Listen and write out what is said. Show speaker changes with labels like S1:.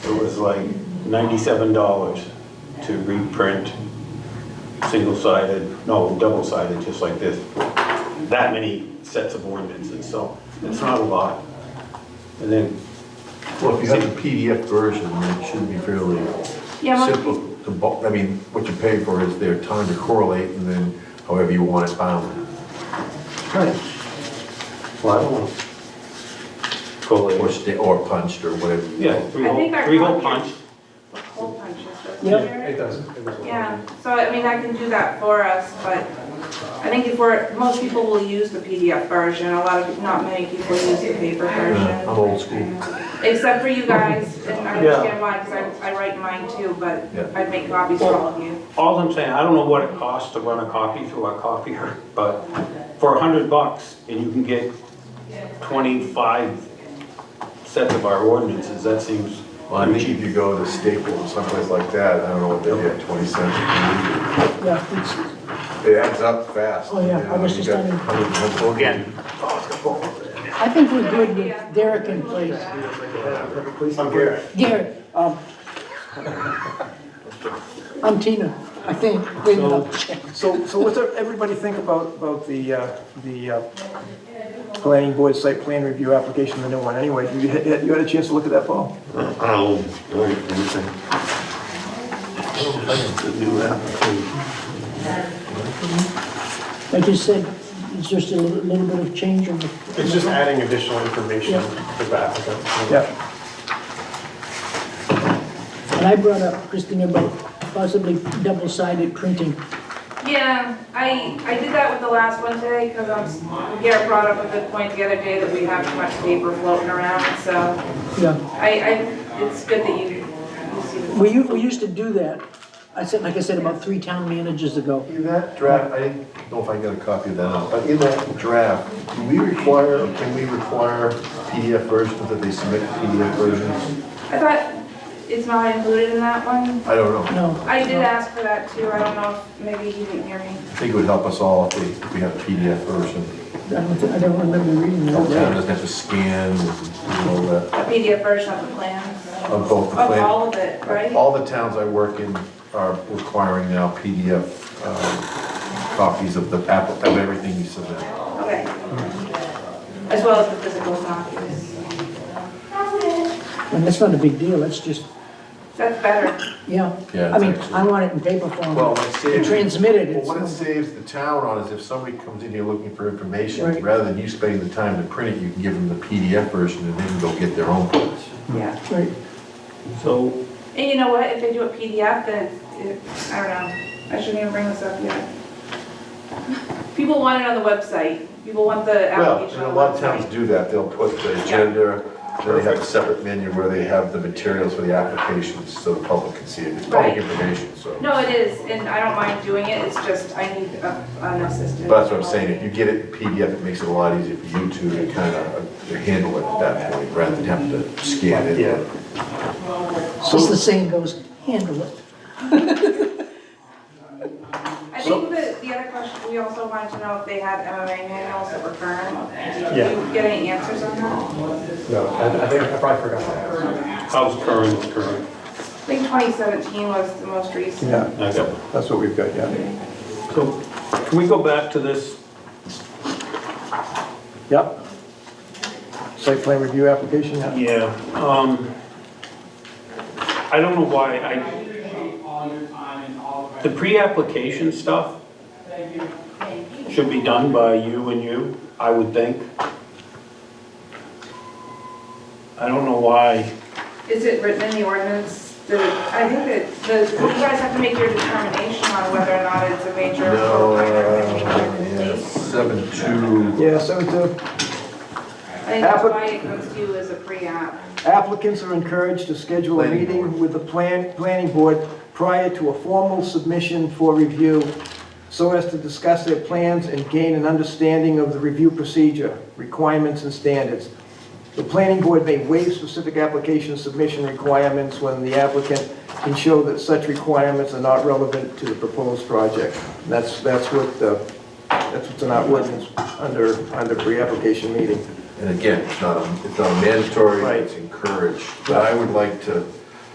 S1: it was like ninety-seven dollars to reprint single-sided, no, double-sided, just like this, that many sets of ordinances, so it's not a lot. And then,
S2: Well, if you have the PDF version, it should be fairly
S3: Yeah, well-
S2: simple. to bo- I mean, what you pay for is their time to correlate and then however you want it bound.
S1: well, I don't know.
S2: Or
S1: Collate.
S2: sta- or punched or whatever. you
S1: Yeah,
S2: want.
S1: three
S3: I think
S1: hole,
S3: our
S1: three hole
S3: copy
S1: punch.
S3: is- Hole punches, doesn't
S4: Yeah,
S3: it?
S4: it does. It does look
S3: Yeah, so I mean, I can do that for us, but I think if we're, most people will use the PDF version, a lot of, not many people use the paper
S2: Yeah, Uh, I'm
S3: version.
S2: old school.
S3: Except for you guys, and I
S1: Yeah.
S3: understand why, because I, I write mine too, but
S2: Yeah.
S3: I'd make copies for all of you.
S1: All I'm saying, I don't know what it costs to run a copy through our copier, but for a hundred bucks, and you can get twenty-five sets of our ordinances, that seems.
S2: Well, I think if you go to Staples, someplace like that, I don't know what they get, 20 cents. a
S4: Yeah, it's-
S2: page. It adds up fast.
S4: Oh, yeah, I was just on it.
S2: Well,
S1: Again,
S2: Oh,
S4: I think we're good with Derek in place.
S1: I'm here.
S4: Derek, um, I'm Tina, I think. Wait a minute.
S5: So, so what does everybody think about, about the, uh, the uh, planning board site plan review application, the new one, anyway? You had, you had a chance to look at that, Paul?
S6: I'll, anything. The new application.
S4: Like you said, it's just a little little bit of change on the
S7: It's just adding additional information to the applicant.
S5: Yeah,
S4: And I brought up, Christine, about possibly double-sided printing.
S3: Yeah, I, I did that with the last one today, because I'm, s- Garrett brought up a good point the other day that we have too much paper floating around, so
S4: Yeah,
S3: I, I, it's good that you, you see this.
S4: we, u- we used to do that. I said, like I said, about three town managers ago.
S2: In that draft, I don't know if I can get a copy of that, out, but in that draft, do we require, or can we require PDF versions that they submit PDF versions?
S3: I thought, it's not included in that one?
S2: I don't know.
S4: No,
S3: I did ask for that too, I don't know, if maybe he didn't hear me.
S2: I think it would help us all if we- if we had a PDF version.
S4: I don't, thi- I don't remember reading
S3: Oh,
S2: The town
S4: that.
S2: doesn't have to scan and all that,
S3: A PDF version of the plans,
S2: of both the
S3: of
S2: plan.
S3: all of it, right?
S2: All the towns I work in are requiring now PDF um, copies of the, app- of everything you submit.
S3: Okay.
S2: Mm-hmm.
S3: As well as the physical copies.
S4: And that's not a big deal, that's just,
S3: That's better.
S4: yeah.
S2: Yeah,
S4: I mean,
S2: it's actually-
S4: I want it in paper form.
S2: Well, what it saves.
S4: Transmitted,
S2: Well, what it
S4: it's,
S2: saves the town on is if somebody comes in here looking for information,
S4: Right.
S2: rather than you spending the time to print it, you can give them the PDF version and they can go get their own. ones.
S3: Yeah.
S4: right.
S1: So,
S3: And you know what, if they do a PDF, then it's, it- I don't know, I shouldn't even bring this up yet. People want it on the website, people want the
S2: Well,
S3: application
S2: and a
S3: on the website.
S2: lot of towns do that, they'll put the agenda, then they have a separate menu where they have the materials for the applications, so the public can see it, it's public
S3: Right.
S2: information, so.
S3: No, it is, and I don't mind doing it, it's just I need a- an assistant.
S2: But that's what I'm saying, if you get it in PDF, it makes it a lot easier for you two to kind of handle it at that point, rather than having to scan it.
S7: Yeah.
S4: Just the saying goes, handle it.
S3: I think that the other question, we also wanted to know if they had MMA manuals that were current.
S7: Yeah.
S3: Did you get any answers on that?
S7: No, I I think, I probably forgot to ask.
S1: how's current, is current?
S3: I think 2017 was the most recent.
S5: yeah,
S1: I got one.
S5: that's what we've got, yeah.
S1: So, can we go back to this?
S5: Yep. Site plan review application, yeah.
S1: Yeah. Um, I don't know why I, the pre-application stuff should be done by you and you, I would think. I don't know why,
S3: Is it written in the ordinance? Did it- I think that the, you guys have to make your determination on whether or not it's a major
S2: No,
S3: or minor
S2: uh,
S3: major
S2: yeah,
S3: mistake.
S2: seven two.
S5: Yeah, so the
S3: I think that's why it comes to you as a pre-app.
S5: applicants are encouraged to schedule a
S2: Planning
S5: meeting
S2: board.
S5: with the plan, planning board prior to a formal submission for review so as to discuss their plans and gain an understanding of the review procedure, requirements and standards. The planning board may waive specific application submission requirements when the applicant can show that such requirements are not relevant to the proposed project. That's, that's what, the- that's what's in our ordinance under, under pre-application meeting.
S2: And again, it's not, a- it's not mandatory,
S5: Right.
S2: it's encouraged. But I would like to